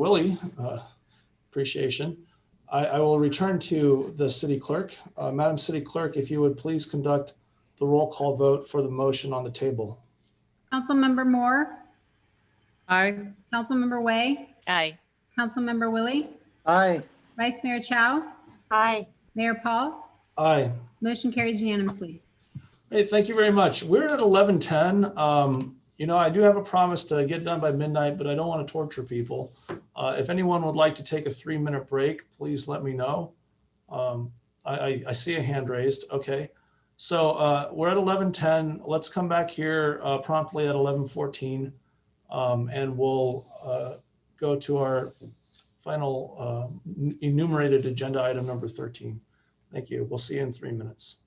Willie, uh, appreciation. I, I will return to the city clerk. Uh, Madam City Clerk, if you would please conduct the roll call vote for the motion on the table. Councilmember Moore, Aye. Councilmember Way, Aye. Councilmember Willie, Aye. Vice Mayor Chow, Aye. Mayor Paul. Aye. Motion carries unanimously. Hey, thank you very much. We're at eleven ten. Um, you know, I do have a promise to get done by midnight, but I don't want to torture people. Uh, if anyone would like to take a three minute break, please let me know. Um, I, I, I see a hand raised. Okay. So, uh, we're at eleven ten. Let's come back here, uh, promptly at eleven fourteen. Um, and we'll, uh, go to our final, uh, enumerated agenda item number thirteen. Thank you. We'll see you in three minutes.